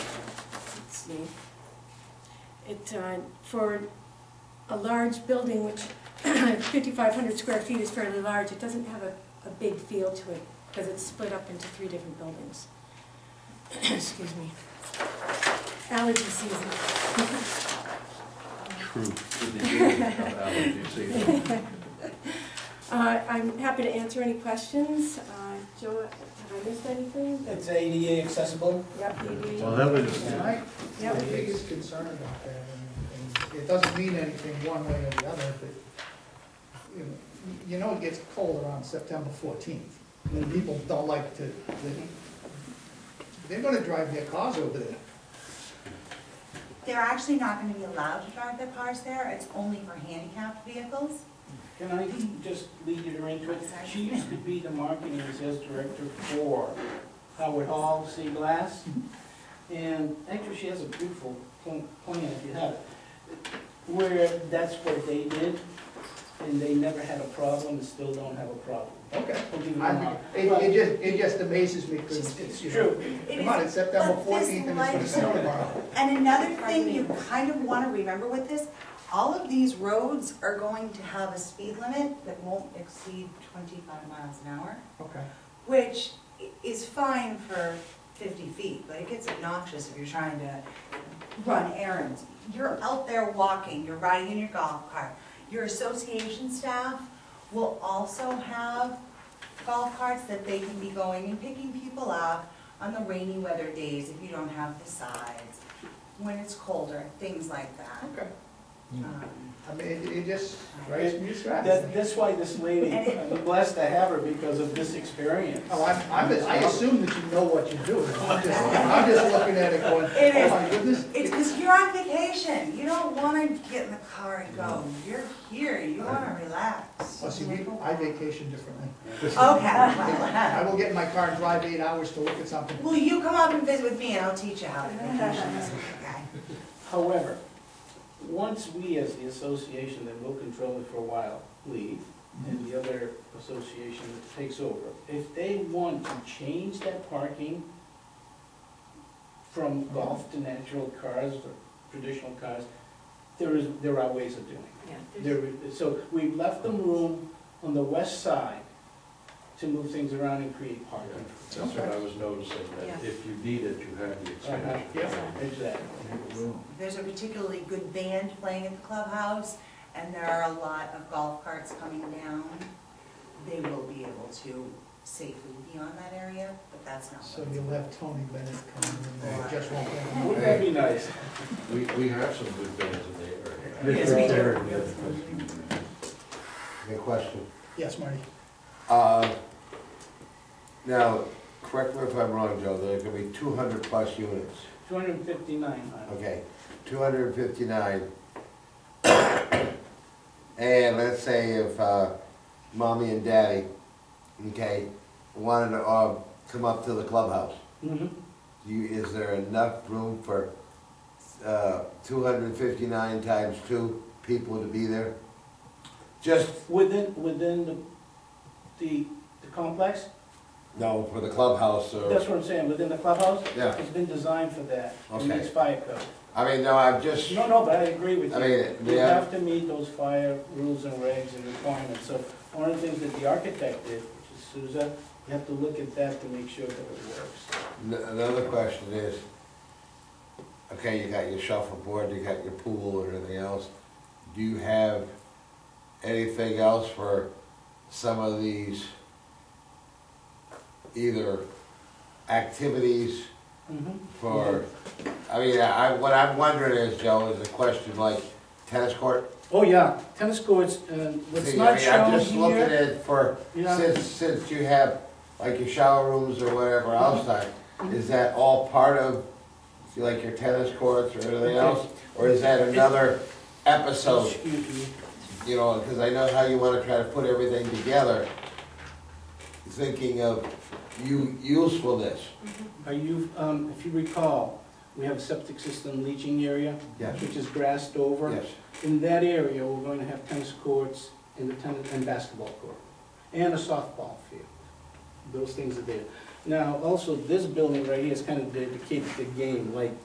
me. It, uh, for a large building, which 5,500 square feet is fairly large, it doesn't have a, a big feel to it because it's split up into three different buildings. Excuse me. Allergy season. True. With the hearing of allergy season. Uh, I'm happy to answer any questions. Uh, Joe, have I missed anything? It's ADA accessible. Yep, you do. Well, that was, And I, my Yep. biggest concern about that, and- and it doesn't mean anything one way or the other, but, you know, you know it gets cold around September fourteenth, and people don't like to, they- they're gonna drive their cars over there. They're actually not gonna be allowed to drive their cars there, it's only for handicapped vehicles. Can I just lead you into it? She used to be the marketing and sales director for Howard Hall Sea Glass. And actually, she has a beautiful pl- plan, if you have it, where that's what they did, and they never had a problem and still don't have a problem. Okay. I'll give you I, my- it, it just, it just amazes me, because it's, It's you know, true. It come on, is, it's September but this fourteenth and it's gonna snow tomorrow. and another thing you kind of wanna remember with this, all of these roads are going to have a speed limit that won't exceed twenty-five miles an hour, Okay. which i- is fine for fifty feet, but it gets obnoxious if you're trying to run errands. You're out there walking, you're riding in your golf cart. Your association staff will also have golf carts that they can be going and picking people up on the rainy weather days if you don't have the sides, when it's colder, things like that. Okay. Um, I mean, it, it just drives me crazy. That, that's why this lady, I'm blessed to have her because of this experience. Oh, I'm, I'm, I assume that you know what you're doing. I'm just, I'm just looking at it going, It oh is. my goodness. It's because you're on vacation, you don't wanna get in the car and go, you're here, you wanna relax. Oh, see, we, I vacation differently. Okay, well, I will get in my car and drive eight hours to look at something. Will you come up and visit with me and I'll teach you how to vacation this week, okay? However, once we as the association that will control it for a while leave, and the other association that takes over, if they want to change that parking from golf to natural cars or traditional cars, there is, there are ways of doing it. Yeah, there's- There, we- so we've left them room on the west side to move things around and create parking. That's what I was noticing, that if you need it, you have the Uh-huh. expansion. Yeah, exactly. There's a particularly good band playing at the clubhouse, and there are a lot of golf carts coming down. They will be able to safely be on that area, but that's not So what it's you'll about. have Tony Bennett coming in there, just won't have Wouldn't that be nice? We, we have some good bands in the area. Yes, we do. Okay, question. Yes, Marty? Uh, Now, correct me if I'm wrong, Joe, there are gonna be two hundred plus units, 259, I okay, two hundred and fifty-nine. And let's say if uh, mommy and daddy, okay, wanted to uh, come up to the clubhouse, Mm-hmm. you, is there enough room for uh, two hundred and fifty-nine times two people to be there? Just, Within, within the, the, the complex, no, for the clubhouse or? that's what I'm saying, within the clubhouse? Yeah. It's been designed for that, it meets Okay. fire code. I mean, no, I'm just, No, no, but I agree with I you. mean, You yeah. have to meet those fire rules and regs and requirements, so one of the things that the architect did, which is Souza, you have to look at that to make sure that it works. N- Another question is, okay, you got your shuffleboard, you got your pool and everything else. Do you have anything else for some of these either activities Mhm. for, I mean, I, what I'm wondering is, Joe, is a question like tennis court? Oh, yeah, tennis courts, uh, what's See, I not mean, I'm shown just looking here. at for, Yeah. since, since you have like your shower rooms or whatever outside, is that all part of, see, like your tennis courts or anything Okay. else? Or is that another episode, Excuse me. you know, because I know how you wanna try to put everything together, thinking of u- usefulness. Are you, um, if you recall, we have a septic system leaching area, Yes. which is grassed over. Yes, In that area, we're going to have tennis courts and the tennis, and basketball court, and a softball field. Those things are there. Now, also, this building right here is kind of dedicated to game, like